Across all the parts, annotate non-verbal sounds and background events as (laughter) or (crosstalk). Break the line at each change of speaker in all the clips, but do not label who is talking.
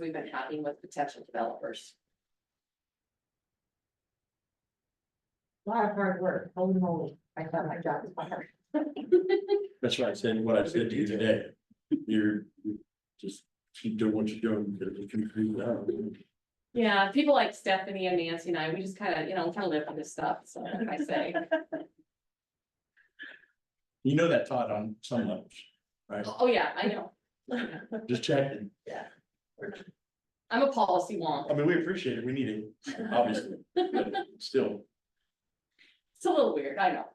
we've been having with potential developers.
A lot of hard work, holy moly, I thought my job was hard.
That's why I said what I said to you today. You're, you just keep doing what you're doing, because you can do that.
Yeah, people like Stephanie and Nancy and I, we just kind of, you know, kind of live for this stuff, so I say.
You know that Todd on some levels, right?
Oh, yeah, I know.
Just checking.
I'm a policy
I
wonk.
mean, we appreciate it. We need it, obviously, but still.
It's a little weird, I know.
(laughs)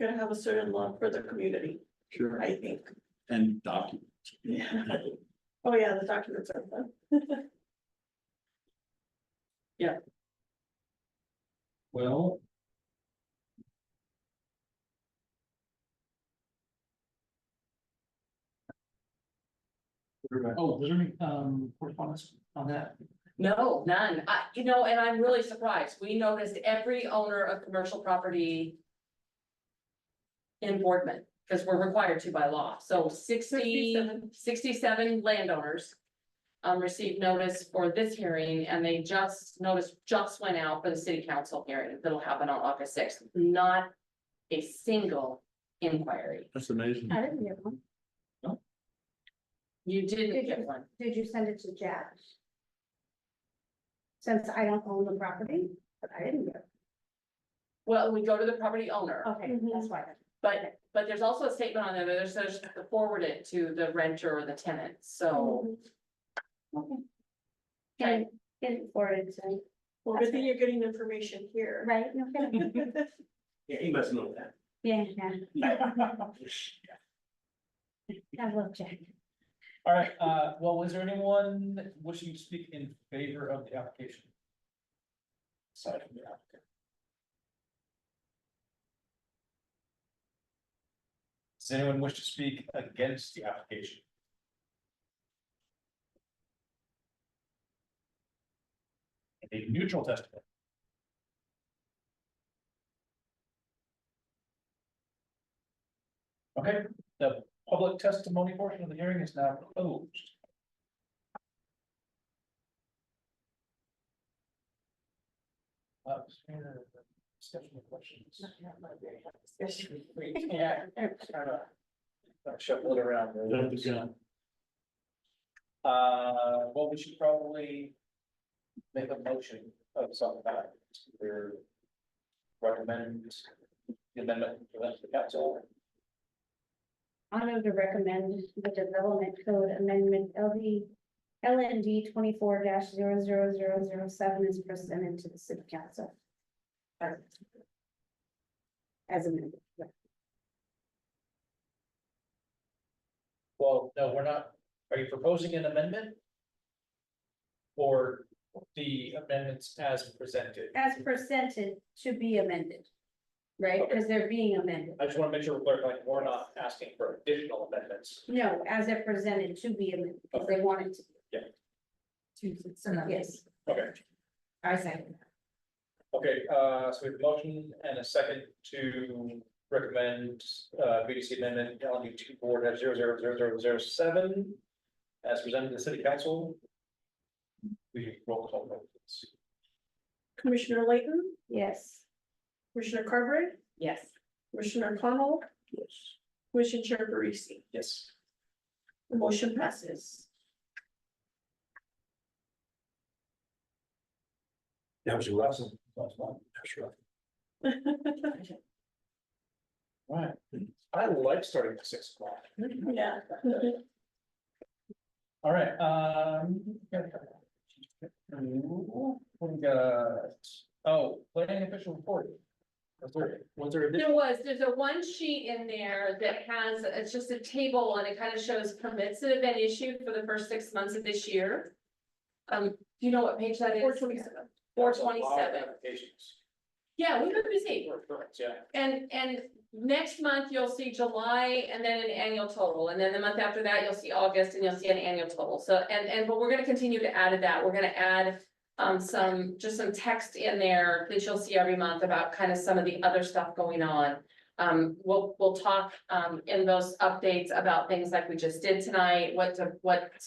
Gonna have a certain love for the community,
Sure.
I think.
And document.
Yeah. Oh, yeah, the documents are fun.
Well. Oh, was there any, um, correspondence on that?
No, none. I, you know, and I'm really surprised. We noticed every owner of commercial property. In Boardman, because we're required to by law. So 60 67
67.
landowners. Um, received notice for this hearing and they just, notice just went out for the city council hearing that'll happen on August sixth. Not a single inquiry.
That's amazing.
I didn't get one.
You didn't get one.
Did you send it to Jack? Since I don't own the property, but I didn't get
Well, we go to the property owner.
it, okay, that's why.
But, but there's also a statement on there, that it says to forward it to the renter or the tenant, so.
Get it forwarded to, me,
Well, good thing you're getting information here.
right? No
(laughs)
kidding. (laughs)
Yeah, he must know that.
Yeah, yeah, I love Jack.
All right, uh, well, was there anyone wishing to speak in favor of the application? Aside from the applicant. Does anyone wish to speak against the application? A neutral testimony. Okay, the public testimony portion of the hearing is now closed. Uh, is there a Discussion of questions. Yeah. Shuffle it around.
Jump the gun.
Uh, well, we should probably make a motion of some kind. to Recommend the amendment to the council.
I move to recommend the development code amendment LD, LND twenty-four 7 is presented to the city council. As amended. yeah.
Well, no, we're not, are you proposing an amendment? Or the amendments as presented?
As presented to be amended, right? Because they're being amended.
I just want to make sure we're clear, like, we're not asking for additional amendments.
No, as they're presented to be amended, if they wanted to.
Yeah.
Yes,
Okay,
I second.
okay, uh, so we have a motion and a second to recommend, uh, BDC amendment, LNU two four dash zero zero zero zero zero seven. As presented to the city council. We roll call vote, please.
Commissioner Layton,
Yes.
Commissioner Carberry,
Yes.
Commissioner Connell,
Yes.
Commissioner Chair Parisi.
yes.
The motion passes.
That was your last one. That's right.
Right, I like starting at six o'clock.
Yeah.
All right, um. we got- Oh, planning official report. Was there, was there, addi-
There was, there's a one sheet in there that has, it's just a table and it kind of shows permits that have been issued for the first six months of this year. Um, do you know what page that is?
Four twenty-seven.
Four
That's a lot of
twenty-seven.
Applications.
Yeah, we've been busy.
Yeah,
And, and next month you'll see July and then an annual total, and then the month after that you'll see August and you'll see an annual total. So, and, and, but we're gonna continue to add to that. We're gonna add um, some, just some text in there that you'll see every month about kind of some of the other stuff going on. Um, we'll, we'll talk, um, in those updates about things like we just did tonight, what to, what's